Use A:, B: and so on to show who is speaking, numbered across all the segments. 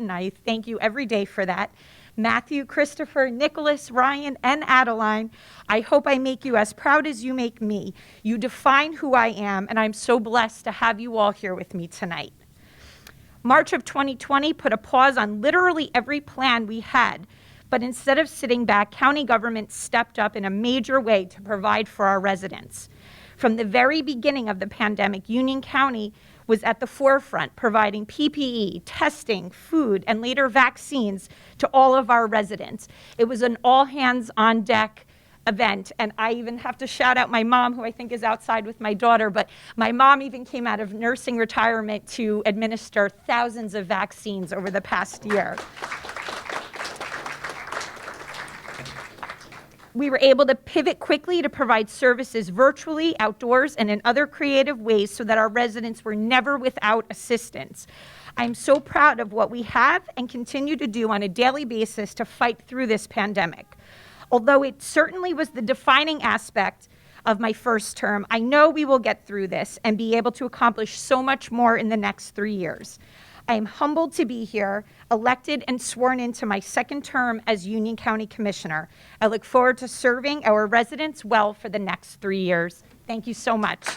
A: and I thank you every day for that. Matthew, Christopher, Nicholas, Ryan, and Adeline, I hope I make you as proud as you make me. You define who I am, and I'm so blessed to have you all here with me tonight. March of 2020 put a pause on literally every plan we had, but instead of sitting back, county government stepped up in a major way to provide for our residents. From the very beginning of the pandemic, Union County was at the forefront, providing PPE, testing, food, and later vaccines to all of our residents. It was an all hands on deck event. And I even have to shout out my mom, who I think is outside with my daughter. But my mom even came out of nursing retirement to administer thousands of vaccines over the past year. We were able to pivot quickly to provide services virtually, outdoors, and in other creative ways so that our residents were never without assistance. I'm so proud of what we have and continue to do on a daily basis to fight through this pandemic. Although it certainly was the defining aspect of my first term, I know we will get through this and be able to accomplish so much more in the next three years. I am humbled to be here, elected and sworn into my second term as Union County Commissioner. I look forward to serving our residents well for the next three years. Thank you so much.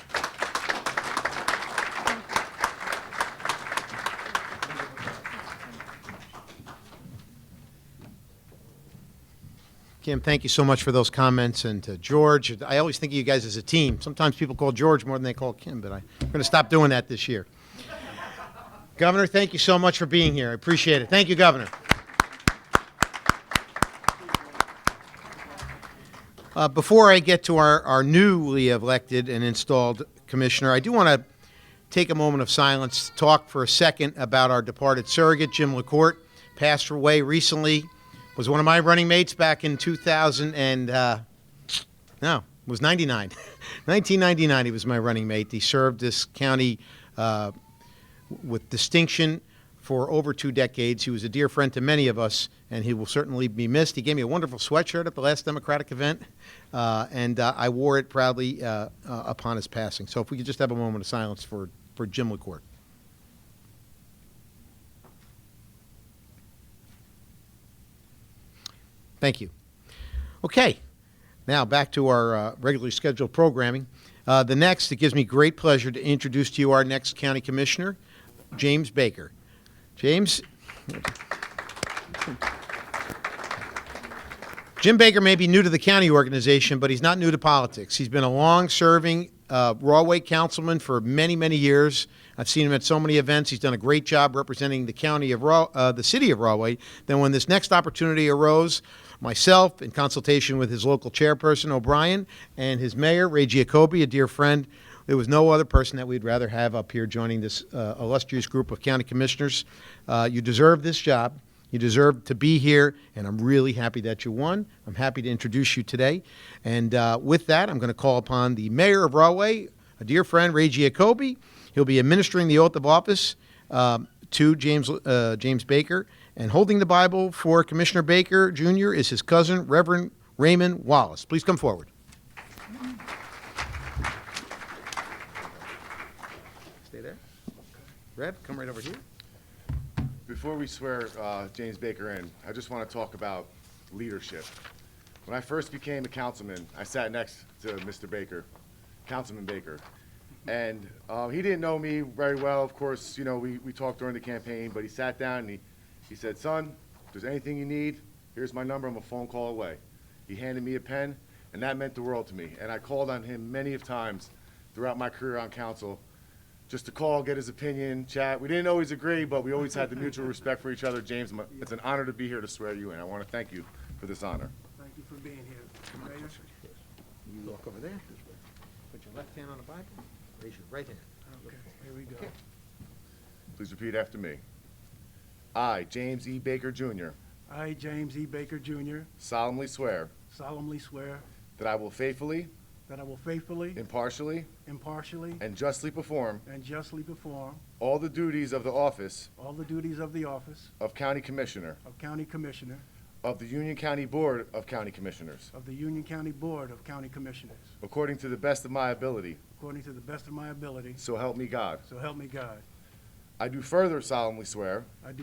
B: Kim, thank you so much for those comments, and to George, I always think of you guys as a team. Sometimes people call George more than they call Kim, but I- I'm going to stop doing that this year. Governor, thank you so much for being here. I appreciate it. Thank you, Governor. Uh, Before I get to our our newly elected and installed commissioner, I do want to take a moment of silence to talk for a second about our departed surrogate, Jim LaCourte, passed away recently, was one of my running mates back in 2000 and, uh, no, it was 99. 1999, he was my running mate. He served this county uh, with distinction for over two decades. He was a dear friend to many of us, and he will certainly be missed. He gave me a wonderful sweatshirt at the last Democratic event, uh, and uh, I wore it proudly uh, uh, upon his passing. So if we could just have a moment of silence for, for Jim LaCourte. Thank you. Okay, now back to our uh, regularly scheduled programming. Uh, The next, it gives me great pleasure to introduce to you our next county commissioner, James Baker. James? Jim Baker may be new to the county organization, but he's not new to politics. He's been a long-serving uh, Rawway councilman for many, many years. I've seen him at so many events. He's done a great job representing the county of Raw, uh, the city of Rawway. Then, when this next opportunity arose, myself, in consultation with his local chairperson O'Brien and his mayor Ray Giacobbe, a dear friend, there was no other person that we'd rather have up here joining this uh, illustrious group of county commissioners. Uh, you deserve this job. You deserve to be here, and I'm really happy that you won. I'm happy to introduce you today. And uh, with that, I'm going to call upon the mayor of Broadway, a dear friend, Ray Giacobbe. He'll be administering the oath of office um, to James, uh, James Baker. And holding the Bible for Commissioner Baker Jr. is his cousin, Reverend Raymond Wallace. Please come forward. Stay there. Rev, come right over here.
C: Before we swear uh, James Baker in, I just want to talk about leadership. When I first became a councilman, I sat next to Mr. Baker, Councilman Baker. And uh, he didn't know me very well, of course, you know, we, we talked during the campaign, but he sat down and he, he said, son, if there's anything you need, here's my number, I'm a phone call away. He handed me a pen, and that meant the world to me. And I called on him many of times throughout my career on council, just to call, get his opinion, chat. We didn't always agree, but we always had the mutual respect for each other. James, m- it's an honor to be here to swear you in. I want to thank you for this honor.
D: Thank you for being here, Mayor.
B: You walk over there. Put your left hand on the Bible. Raise your right hand.
D: Okay, here we go.
C: Please repeat after me. I, James E. Baker Jr.,
D: I, James E. Baker Jr.,
C: solemnly swear
D: solemnly swear
C: that I will faithfully,
D: that I will faithfully,
C: impartially,
D: impartially,
C: and justly perform
D: and justly perform
C: all the duties of the office
D: all the duties of the office
C: of County Commissioner
D: of County Commissioner
C: of the Union County Board of County Commissioners,
D: of the Union County Board of County Commissioners,
C: according to the best of my ability.
D: according to the best of my ability,
C: So help me God.
D: so help me God.
C: I do further solemnly swear
D: I do